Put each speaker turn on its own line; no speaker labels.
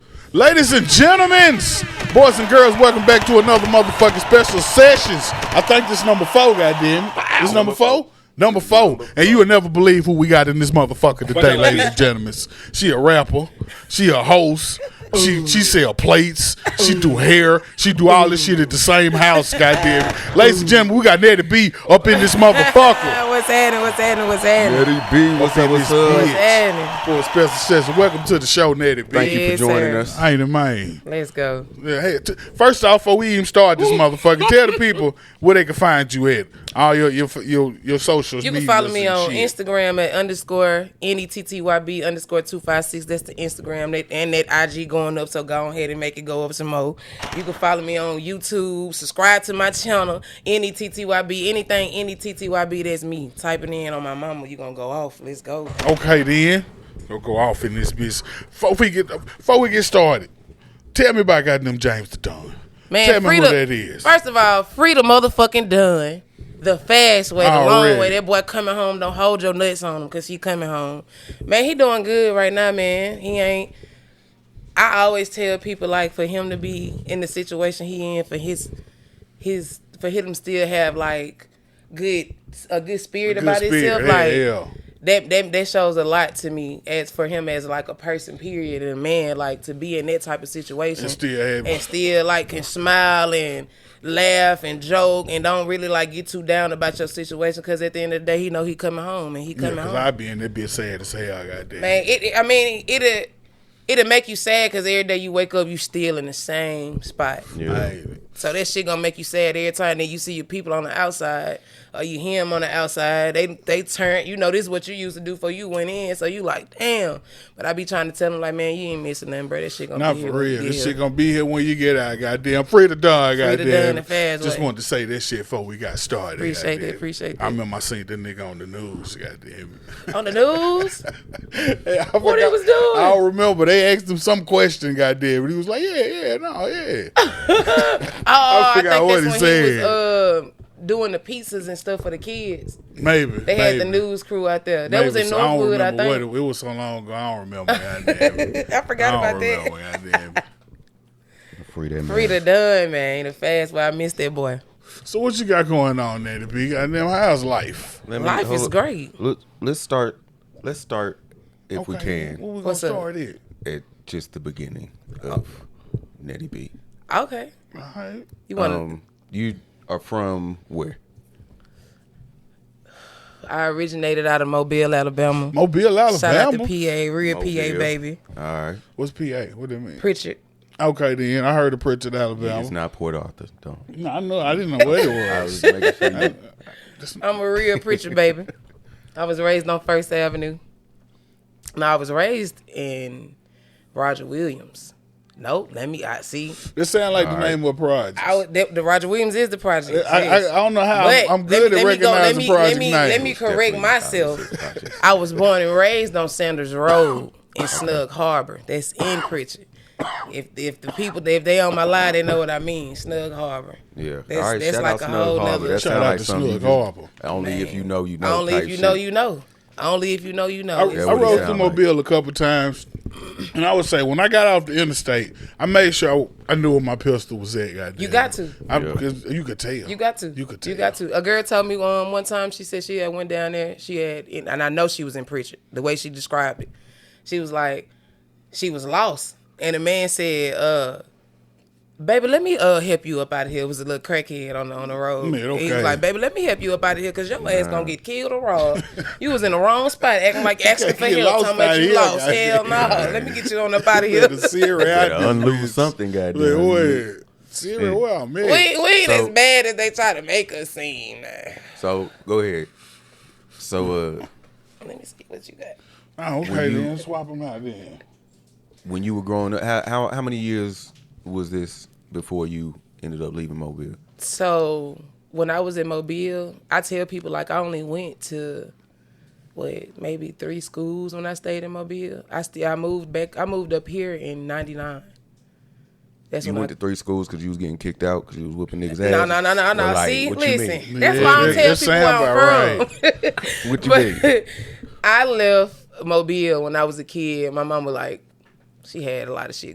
Ladies and gentlemen, boys and girls, welcome back to another motherfucking special sessions. I think this number four, goddamn. This number four? Number four. And you will never believe who we got in this motherfucker today, ladies and gentlemen. She a rapper. She a host. She she sell plates. She do hair. She do all this shit at the same house, goddamn. Ladies and gentlemen, we got Nettie B up in this motherfucker.
what's happening? What's happening? What's happening?
Eddie B, what's up? What's
What's
up?
up?
What's happening?
for a special session. Welcome to the show, Nettie B.
Thank you for
Yes,
joining
sir.
us.
I ain't a man.
Let's go.
Yeah, hey, t- first off, before we even start this motherfucker, tell the people where they can find you at. All your your your, your socials.
You can
medias
follow me
and
on
shit.
Instagram at underscore E N-E-T-T-Y-B underscore 256. That's the Instagram that, and that IG going up, so go ahead and make it go up some more. You can follow me on YouTube. Subscribe to my channel, E N-E-T-T-Y-B. Anything E N-E-T-T-Y-B, that's me. Typing in on my mama, you going to go off. Let's go.
Okay, then don't go off in this bitch. Before we get before we get started, tell me about goddamn James the Don.
Man,
tell me
free
who
the-
that is.
First of all, free the motherfucking done. The fast way, the
Already.
long way. That boy coming home, don't hold your nuts on him because he coming home. Man, he doing good right now, man. He ain't. I always tell people like for him to be in the situation he in for his his for him to still have like good a good spirit
Good
about
spirit,
himself.
yeah,
like
yeah.
that that that shows a lot to me as for him as like a person, period, and a man, like to be in that type of situation
And still have-
and still like can smile and laugh and joke and don't really like get too down about your situation because at the end of the day he know he coming home and he
Yeah,
coming
cause
home.
I be in that bitch sad as hell. Goddamn.
Man, it, it- I mean, it'll it'll make you sad because every day you wake up, you still in the same spot.
Hey,
So that shit gonna make you sad every time that you see your people on the outside or you hear them on the outside. They they turn, you know, this is what you used to do for you went in. So you like, damn. But I be trying to tell them like, man, you ain't missing nothing, bro. That shit gonna
Not
be
for
here when
real.
you
This
get
shit
here.
gonna be here when you get out. Goddamn, free the dog.
Free the dog
Goddamn.
the fast
Just
way.
wanted to say that shit before we got started.
Appreciate that,
goddamn.
appreciate
I
that.
remember I seen the nigga on the news. Goddamn.
on the news.
Hey, I
What he
forgot-
was doing?
I don't remember. They asked him some question. Goddamn. And he was like, Yeah, yeah, no, yeah.
Oh, I,
forgot
think that's
what he
when he
said.
was uh, doing the pizzas and stuff for the kids.
Maybe.
They had the news crew out there. That was in Northwood, I,
I don't remember
think.
What it, it was so long ago. I don't remember. Goddamn.
I forgot
I don't
about that.
remember. Goddamn.
Free that man.
Rita Dunn, man, the fast way I missed that boy.
So what you got going on, Natty B? Goddamn, how's life?
Let
Life
hold
is
up.
great.
Let, let's start. Let's start, if we
What
can,
we gonna
What's up?
start it?
at just the beginning of Nettie B.
Okay,
All right.
you want to?
Um, you are from where?
I originated out of Mobile, Alabama.
Mobile, Alabama.
Shout out to PA, real
Mobile.
PA baby,
All right.
What's PA? What do you mean?
Pritchard.
Okay, then I heard of Pritchard, Alabama.
It's not Port Arthur. Don't.
no, I know. I didn't know what it
I
was.
was making sure you-
I'm a real Pritchard baby. I was raised on First Avenue. Now I was raised in Roger Williams. Nope, let me. I see.
This sound like the
right.
name of a project.
I
I,
would, that, the Roger Williams is the project.
I, I
yes.
don't know how
But
I'm, I'm good
let
at
me- let me go- let
recognizing
me-
project
let me-
names.
let me correct
Definitely
myself.
not this project.
I was born and raised on Sanders Road in Snug Harbor. That's in Pritchard. If if the people if they on my line, they know what I mean. Snug Harbor.
Yeah.
That's,
All right.
that's
shout
like
out
a
Snug
whole
Harbor.
nother.
That
Shout
sound
out
like
to
something you
Snug
just-
Harbor.
Only if you know you know.
Only if
type
you know
shit.
you know. Only if you know you know.
I,
It's-
I
what it
rode
sound
through
like.
Mobile a couple times, and I would say when I got off the interstate, I made sure I, I knew where my pistol was at. Goddamn.
You got to.
I,
Yeah.
'cause You could tell.
You got to.
You could tell.
You got to. A girl told me um, one time she said she had went down there. She had, and I know she was in Pritchard. The way she described it, she was like, she was lost, and the man said, uh, "Baby, let me uh help you up out of here." It was a little crackhead on the on the road.
Man,
And He
okay.
was like, "Baby, let me help you up out of here because your ass gonna get killed or robbed. you was in the wrong spot, acting like asking for
Get
help,
lost
talking about
outta
you
here,
lost.
goddamn.
Hell no, let me get you on up out of here.
The Siri
Better
out this
unloose
bitch.
something, goddamn.
Like, wait, Siri,
Yeah.
where I'm at?
We we ain't
So-
as bad as they try to make us seem.
So go ahead. So uh,
Let me see what you got.
Oh, okay,
you-
then swap them out then.
when you were growing up, how, how how many years was this before you ended up leaving Mobile?
So when I was in Mobile, I tell people like I only went to what maybe three schools when I stayed in Mobile. I still I moved back. I moved up here in '99. That's
You
when
went
I,
to three schools because you was getting kicked out because you was whooping niggas' ass.
No, no, no, no, no.
Well, like,
See,
what you
listen,
mean?
that's
Yeah,
why I
that-
don't tell
that
people
sound
where I'm
about
from.
What you mean?
but I left Mobile when I was a kid. My mom was like, she had a lot of shit